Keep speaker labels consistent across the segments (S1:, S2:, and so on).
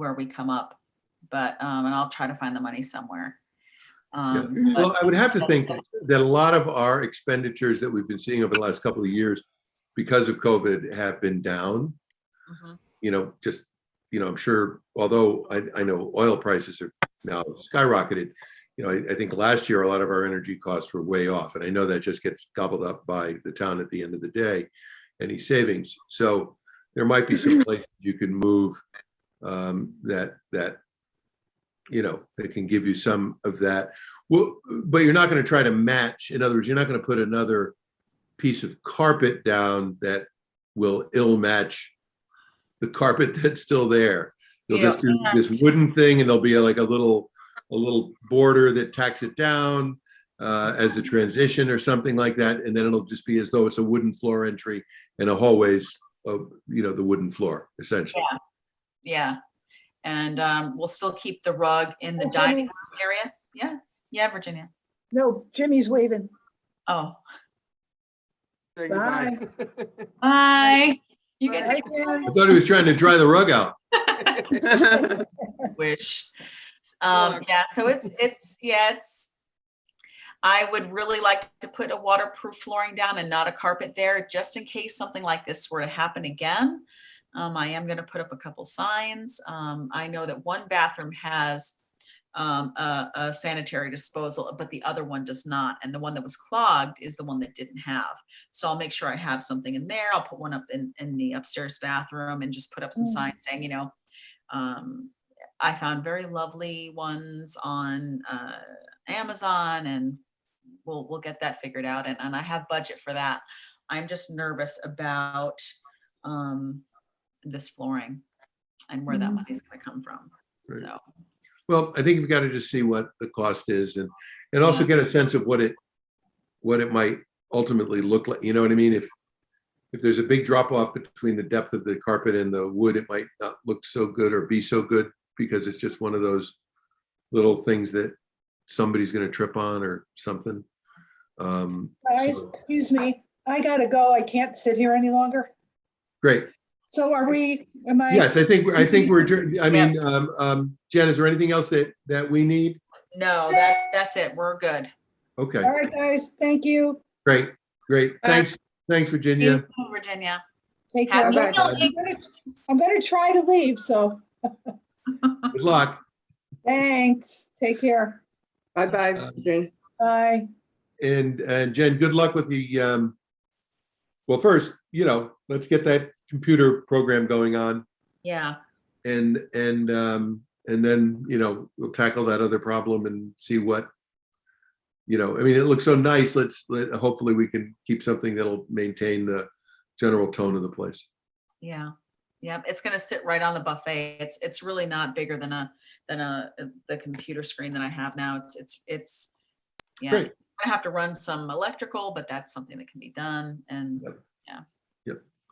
S1: where we come up. But, um, and I'll try to find the money somewhere. Um,
S2: Well,
S1: but-
S2: I would have to think that a lot of our expenditures that we've been seeing over the last couple of years because of COVID have been down,
S1: Mhm.
S2: you know, just, you know, I'm sure, although I, I know oil prices are now skyrocketed. You know, I, I think last year, a lot of our energy costs were way off, and I know that just gets gobbled up by the town at the end of the day, any savings. So there might be some places you can move um, that, that, you know, that can give you some of that well, but you're not going to try to match. In other words, you're not going to put another piece of carpet down that will ill match the carpet that's still there. You'll just do this wooden thing, and there'll be like a little a little border that tacks it down uh, as the transition or something like that, and then it'll just be as though it's a wooden floor entry and a hallways of you know the wooden floor essentially.
S1: Yeah. And, um, we'll still keep the rug in
S3: Oh,
S1: the dining
S3: Jimmy-
S1: room area. Yeah. Yeah, Virginia.
S3: No, Jimmy's waving.
S1: Oh,
S4: Say
S3: Bye.
S1: bye. You get
S3: Hi,
S1: to
S3: Karen.
S2: I thought he was trying to dry the rug out.
S1: wish. Um,
S4: Look.
S1: yeah, so it's, it's, yeah, it's, I would really like to put a waterproof flooring down and not a carpet there, just in case something like this were to happen again. Um, I am gonna put up a couple signs. Um, I know that one bathroom has um, a, a sanitary disposal, but the other one does not. And the one that was clogged is the one that didn't have. So I'll make sure I have something in there. I'll put one up in, in the upstairs bathroom and just put up some
S3: Mm.
S1: signs saying, you know, um, I found very lovely ones on uh, Amazon and we'll, we'll get that figured out. And, and I have budget for that. I'm just nervous about um, this flooring and where that
S3: Mhm.
S1: money's gonna come from.
S2: Right.
S1: So,
S2: Well, I think you've got to just see what the cost is and, and also get a sense of what it, what it might ultimately look like, you know what I mean? If, if there's a big drop off between the depth of the carpet and the wood, it might not look so good or be so good because it's just one of those little things that somebody's gonna trip on or something. Um,
S3: Guys, excuse me, I gotta go. I can't sit here any longer.
S2: great.
S3: So are we, am I,
S2: Yes, I think, I think we're, adjourned. I mean, um, um, Jen, is there anything else that, that we need?
S1: no, that's, that's it. We're good.
S2: Okay,
S3: all right, guys, thank you.
S2: great, great.
S1: All right.
S2: Thanks, thanks, Virginia.
S1: Thank you, Virginia.
S3: Take care.
S1: Have
S3: I'm
S1: a good
S3: gonna-
S2: Bye-bye.
S1: night.
S3: I'm gonna- I'm gonna try to leave, so
S2: Good luck.
S3: thanks. Take care.
S4: Bye-bye, Jane.
S3: Bye.
S2: And, and Jen, good luck with the, um, well, first, you know, let's get that computer program going on
S1: Yeah,
S2: and, and, um, and then, you know, we'll tackle that other problem and see what, you know, I mean, it looks so nice. Let's, let, hopefully we can keep something that'll maintain the general tone of the place.
S1: yeah, yeah. It's gonna sit right on the buffet. It's, it's really not bigger than a, than a, the computer screen that I have now. It's, it's, it's, yeah.
S2: Great.
S1: I have to run some electrical, but that's something that can be done. And
S2: Yep.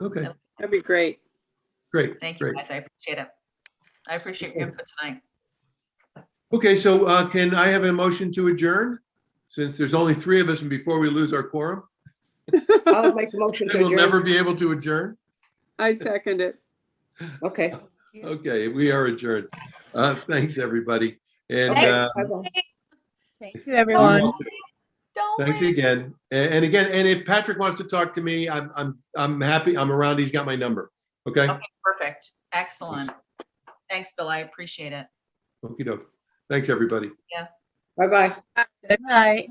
S2: Okay,
S1: Yep.
S5: That'd be great.
S2: great.
S1: thank you
S2: great.
S1: guys. I appreciate it. I appreciate your input tonight.
S2: Okay, so, uh, can I have a motion to adjourn? Since there's only three of us and before we lose our quorum,
S4: I'll make the motion to
S2: we'll never
S4: adjourn.
S2: be able to adjourn.
S5: I second it.
S4: Okay.
S2: Okay, we are adjourned. Uh, thanks, everybody. And,
S1: Thanks.
S2: uh,
S4: Bye-bye.
S6: Thank you, everyone.
S1: Don't
S2: thanks
S1: worry.
S2: again. A- And again, and if Patrick wants to talk to me, I'm, I'm, I'm happy. I'm around. He's got my number. Okay?
S1: Okay, perfect. Excellent. Thanks, Bill. I appreciate it.
S2: Okey doke. Thanks, everybody.
S4: Bye-bye.
S6: Good night.